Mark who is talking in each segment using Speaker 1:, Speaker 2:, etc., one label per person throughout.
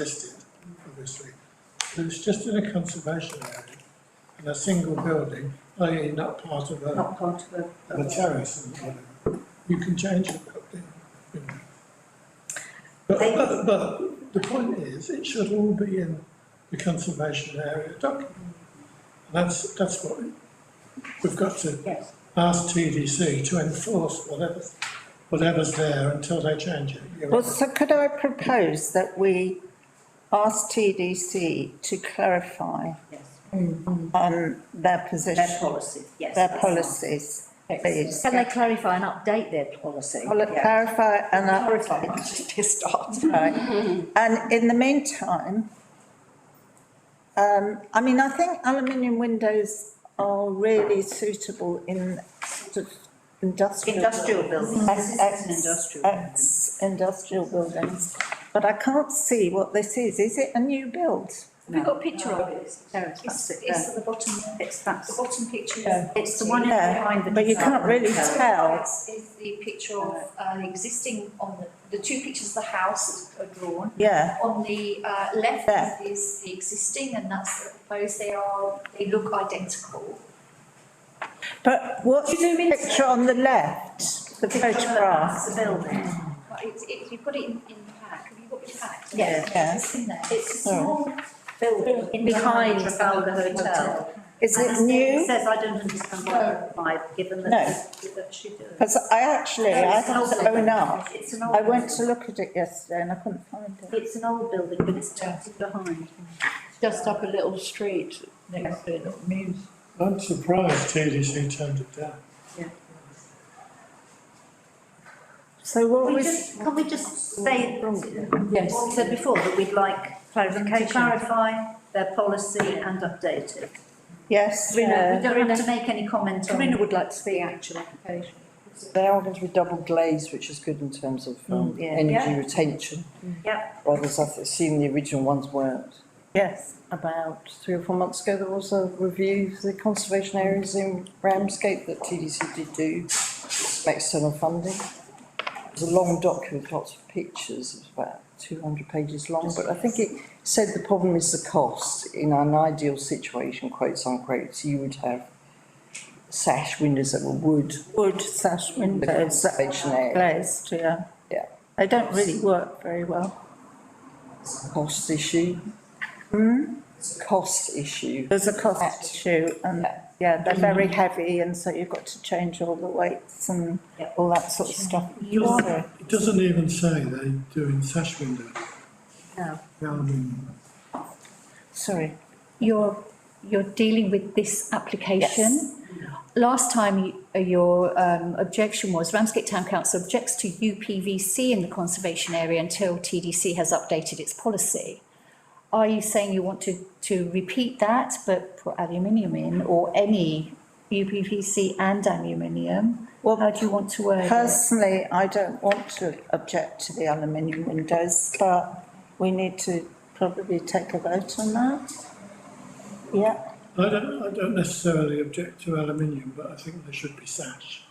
Speaker 1: existed, obviously. But it's just in a conservation area, in a single building, i.e. not part of a,
Speaker 2: not part of a.
Speaker 1: of a terrace and whatever. You can change the building. you know. But,
Speaker 2: They-
Speaker 1: but, but the point is, it should all be in the conservation area document. And That's, that's what we- we've got to
Speaker 2: Yes,
Speaker 1: ask TDC to enforce whatever, whatever's there until they change it. You're
Speaker 3: Well,
Speaker 1: right.
Speaker 3: so could I propose that we ask TDC to clarify
Speaker 2: yes,
Speaker 3: on their position,
Speaker 2: their policy, yes.
Speaker 3: their
Speaker 2: that's
Speaker 3: policies, please?
Speaker 2: fine. Can they clarify and update their policy?
Speaker 3: Well, look,
Speaker 2: Yeah.
Speaker 3: clarify and
Speaker 2: Clarify,
Speaker 3: update.
Speaker 2: to start.
Speaker 3: Right. And in the meantime, um, I mean, I think aluminium windows are really suitable in sort of industrial.
Speaker 2: Industrial buildings, this is
Speaker 3: Ex-
Speaker 2: an industrial. building.
Speaker 3: ex- industrial buildings, but I can't see what this is. Is it a new build?
Speaker 4: Have we got a picture of it?
Speaker 2: Terrace,
Speaker 4: It's,
Speaker 2: that's it
Speaker 4: it's
Speaker 2: there.
Speaker 4: at the bottom,
Speaker 2: It's
Speaker 4: the
Speaker 2: that's,
Speaker 4: bottom picture. is-
Speaker 3: Yeah.
Speaker 2: it's the one in
Speaker 3: Yeah,
Speaker 2: behind the.
Speaker 3: but you can't really tell.
Speaker 4: It's is the picture of an existing, on the, the two pictures of the house are drawn.
Speaker 3: Yeah,
Speaker 4: On the uh,
Speaker 3: Yeah.
Speaker 4: left is the existing and that's the proposed, they are, they look identical.
Speaker 3: but what's the picture on the left, the photograph?
Speaker 4: That's the building. But it's, it, you've got it in, in the pack, have you got your pack?
Speaker 2: Yeah.
Speaker 3: Yeah.
Speaker 4: It's in there.
Speaker 2: It's a
Speaker 3: Alright.
Speaker 2: small building in behind Trafalgar Hotel.
Speaker 3: Is
Speaker 2: And
Speaker 3: it
Speaker 2: it
Speaker 3: new?
Speaker 2: Says, I don't understand why, why, given that. that she did.
Speaker 3: Because I actually, I
Speaker 2: It's an old
Speaker 3: had to
Speaker 2: building.
Speaker 3: own up.
Speaker 2: It's an old.
Speaker 3: I went
Speaker 2: building.
Speaker 3: to look at it yesterday and I couldn't find it.
Speaker 2: It's an old building, but it's just behind.
Speaker 5: just up a little street next to it, it means
Speaker 1: I'm surprised TDC turned it down.
Speaker 3: So what
Speaker 2: Can we
Speaker 3: was,
Speaker 2: just, can we just say, what
Speaker 5: Yes.
Speaker 2: we said before, that we'd like clarification, clarify their policy and update it.
Speaker 3: yes,
Speaker 2: We don't- we
Speaker 3: uh,
Speaker 2: don't have to make any comment on.
Speaker 5: would like to see actual application.
Speaker 6: They are going to be double glazed, which is good in terms of um,
Speaker 3: Mm, yeah. Mm.
Speaker 6: energy
Speaker 2: Yeah.
Speaker 6: retention.
Speaker 2: Yeah.
Speaker 6: Whereas I've seen the original ones weren't.
Speaker 3: yes,
Speaker 6: About three or four months ago, there was a review of the conservation areas in Ramsgate that TDC did do, some external funding. It was a long document, with lots of pictures, it was about two hundred pages long, but I think it said the problem is the cost. In an ideal situation, quotes unquote, you would have sash windows that were wood,
Speaker 3: wood sash
Speaker 6: in the
Speaker 3: windows that
Speaker 6: conservation
Speaker 3: are
Speaker 6: area.
Speaker 3: glazed, yeah.
Speaker 6: Yeah.
Speaker 3: They don't really work very well.
Speaker 6: cost issue.
Speaker 7: Hmm?
Speaker 6: It's a cost issue.
Speaker 3: There's a cost issue and,
Speaker 6: Yeah.
Speaker 3: yeah, they're very heavy and so you've got to change all the weights and
Speaker 2: Yeah.
Speaker 3: all that sort of stuff.
Speaker 1: It doesn't- it doesn't even say they do in sash windows.
Speaker 2: No.
Speaker 1: Um,
Speaker 3: Sorry.
Speaker 4: you're, you're dealing with this application. Last time, you- uh, your um, objection was Ramsgate Town Council objects to UPVC in the conservation area until TDC has updated its policy. Are you saying you want to, to repeat that, but put aluminium in, or any UPVC and aluminium?
Speaker 3: Well,
Speaker 4: How do you want to word it?
Speaker 3: Personally, I don't want to object to the aluminium windows, but we need to probably take a vote on that. Yeah,
Speaker 1: I don't, I don't necessarily object to aluminium, but I think they should be sash.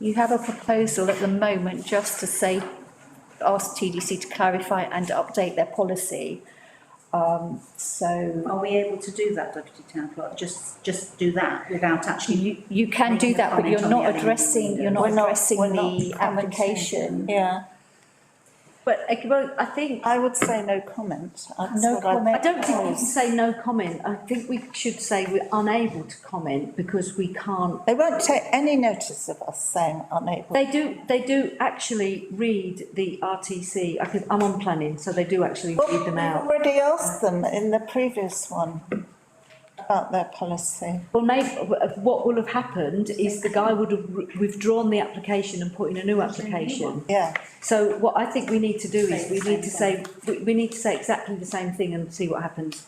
Speaker 4: You have a proposal at the moment just to say, ask TDC to clarify and update their policy. Um, so.
Speaker 2: Are we able to do that, Deputy Town Clerk? Just, just do that without actually,
Speaker 4: You, you can do that, but you're not addressing, you're not
Speaker 3: We're not-
Speaker 4: addressing
Speaker 3: we're not
Speaker 4: the application.
Speaker 3: yeah.
Speaker 7: But I, well, I think,
Speaker 3: I would say no comment. That's
Speaker 4: No
Speaker 3: what I'd-
Speaker 4: comment.
Speaker 7: I don't think we can say no comment. I think we should say we're unable to comment because we can't.
Speaker 3: They won't take any notice of us saying unable.
Speaker 7: They do, they do actually read the RTC. I could, I'm on planning, so they do actually read them out.
Speaker 3: Already asked them in the previous one about their policy.
Speaker 7: Well, maybe, what will have happened is the guy would have re- withdrawn the application and put in a new application.
Speaker 3: Yeah,
Speaker 7: So what I think we need to do is we need to say, we, we need to say exactly the same thing and see what happens.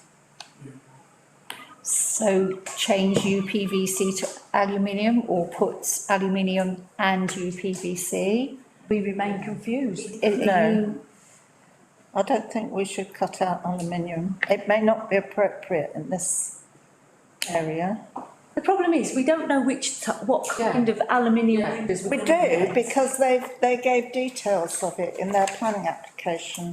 Speaker 4: So change UPVC to aluminium or put aluminium and UPVC?
Speaker 7: We remain confused.
Speaker 4: If
Speaker 3: No.
Speaker 4: you,
Speaker 3: I don't think we should cut out aluminium. It may not be appropriate in this area.
Speaker 4: The problem is, we don't know which, t- what kind of aluminium windows we're
Speaker 3: We
Speaker 4: gonna get.
Speaker 3: do, because they've, they gave details of it in their planning application.